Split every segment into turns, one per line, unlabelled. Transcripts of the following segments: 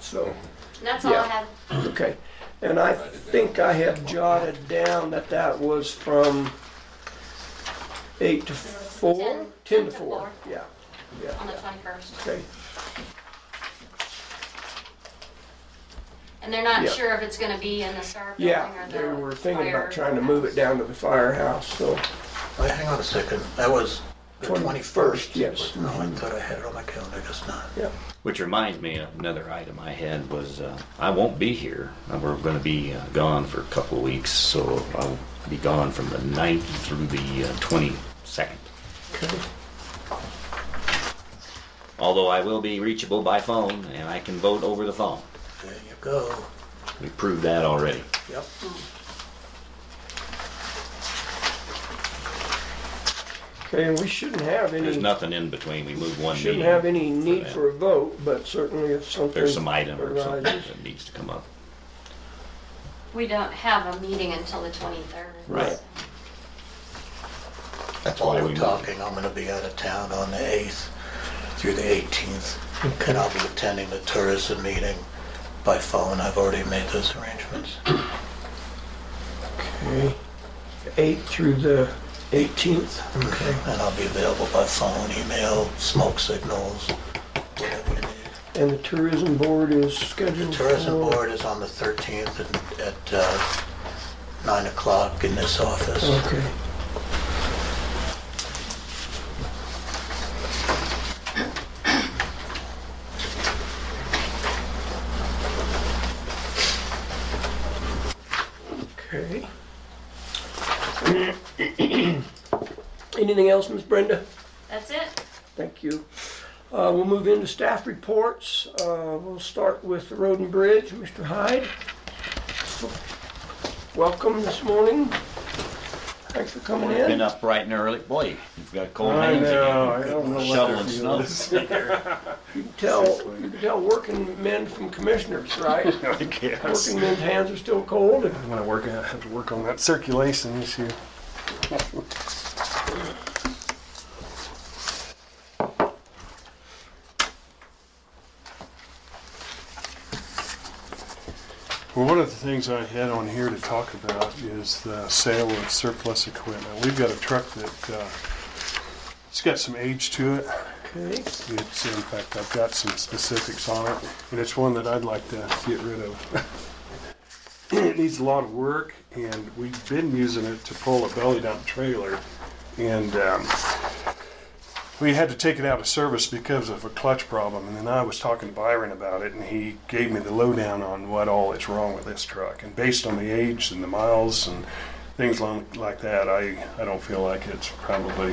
so,
And that's all I
Yeah.
have.
okay. And I think I have jotted down that that was from eight to four?
Ten.
Ten to four, yeah, yeah,
on the 21st.
okay.
And they're not
Yeah.
sure if it's going to be in the Star Building
Yeah,
or the
they were thinking about
fire
trying to move it down to the firehouse, so,
Wait, hang on a second. That was the
21st,
21st.
yes.
No, I thought I had it on my calendar, just not.
yeah.
Which reminds me, another item I had was uh, I won't be here. Uh, We're going to be uh, gone for a couple of weeks, so I'll be gone from the 9th through the uh, 22nd.
Okay.
Although I will be reachable by phone and I can vote over the phone.
There you go.
We proved that already.
Yep.
Okay, and we shouldn't have
There's
any,
nothing in between. We moved one meeting.
shouldn't have any need
that.
for a vote, but certainly if something
There's some item or something
arises.
that needs to come up.
We don't have a meeting until the 23rd.
Right.
That's
why
all
we
we're
moved.
talking. I'm gonna be out of town on the 8th through the 18th. And I'll be attending the tourism meeting by phone. I've already made those arrangements.
Okay. Eight through the eighteenth, okay.
And I'll be available by phone, email, smoke signals, whatever you need.
And the tourism board is scheduled for?
Tourism board is on the 13th and at uh, 9 o'clock in this office.
Okay. Okay. Anything else, Miss Brenda?
That's it.
Thank you. Uh, We'll move into staff reports. Uh, We'll start with the road and bridge. Mr. Hyde, welcome this morning. Thanks for coming
Been
in.
up bright and early. Boy, you've got cold
I
hands
know,
again.
I don't know what
Shoveling
that
snow.
Tell, you can tell working men from commissioners, right?
I guess.
Working men's hands are still cold.
I'm gonna work, I have to work on that circulation issue. Well, one of the things I had on here to talk about is the sale of surplus equipment. We've got a truck that, uh, it's got some age to it.
Okay,
It's, in fact, I've got some specifics on it, and it's one that I'd like to get rid of. It needs a lot of work, and we've been using it to pull a belly dump trailer, and, um, we had to take it out of service because of a clutch problem, and then I was talking to Byron about it, and he gave me the lowdown on what all is wrong with this truck, and based on the age and the miles and things lo- like that, I, I don't feel like it's probably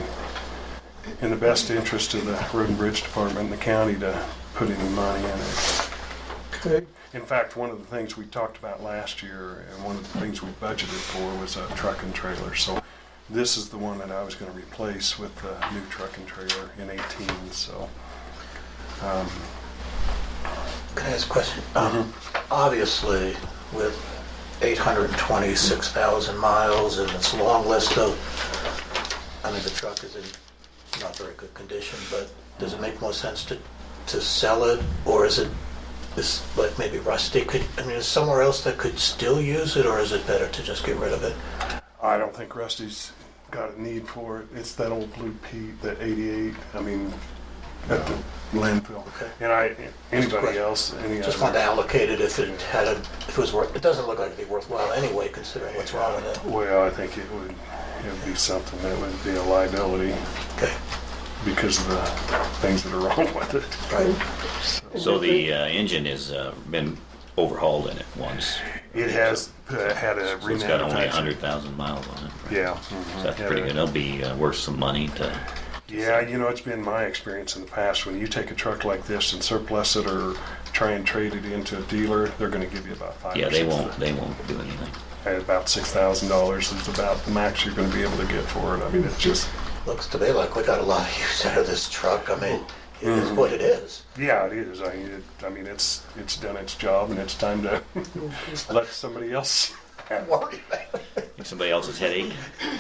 in the best interest of the Road and Bridge Department and the county to put any money in it.
okay,
In fact, one of the things we talked about last year and one of the things we budgeted for was a truck and trailer. So this is the one that I was gonna replace with the new truck and trailer in eighteen, so. um,
Can I ask a question? Um, Obviously, with 826,000 miles and this long list of, I mean, the truck is in not very good condition, but does it make more sense to, to sell it? Or is it, is like maybe rusty? Could, I mean, is somewhere else that could still use it or is it better to just get rid of it?
I don't think Rusty's got a need for it. It's that old blue Pete, that eighty-eight, I mean, at the landfill.
Okay.
And I, anybody else, any
Just
other-
wanted to allocate it if it had a, if it was worth, it doesn't look like it'd be worthwhile anyway considering what's wrong with it.
Well, I think it would, it would be something that would be a liability
Okay,
because of the things that are wrong with it.
right.
So the uh, engine has uh, been overhauled in it once.
It has uh, had a
So it's got only
remanufacturing.
100,000 miles on it.
Yeah. mm-hmm.
So that's pretty good. That'll be uh, worth some money to.
Yeah, you know, it's been my experience in the past, when you take a truck like this and surplus it or try and trade it into a dealer, they're gonna give you about five
Yeah,
or
they
six.
won't. They won't do anything.
at About six thousand dollars is about the max you're gonna be able to get for it. I mean, it's just,
Looks to me like we got a lot of use out of this truck. I mean, it is what it is.
yeah, it is. I mean, it, I mean, it's, it's done its job and it's time to let somebody else have it.
Worry about it.
Somebody else's headache.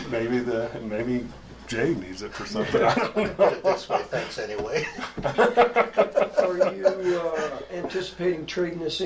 Maybe the, maybe Jay needs it for something. I don't know.
Put it this way, thanks anyway.
Are you uh, anticipating trading this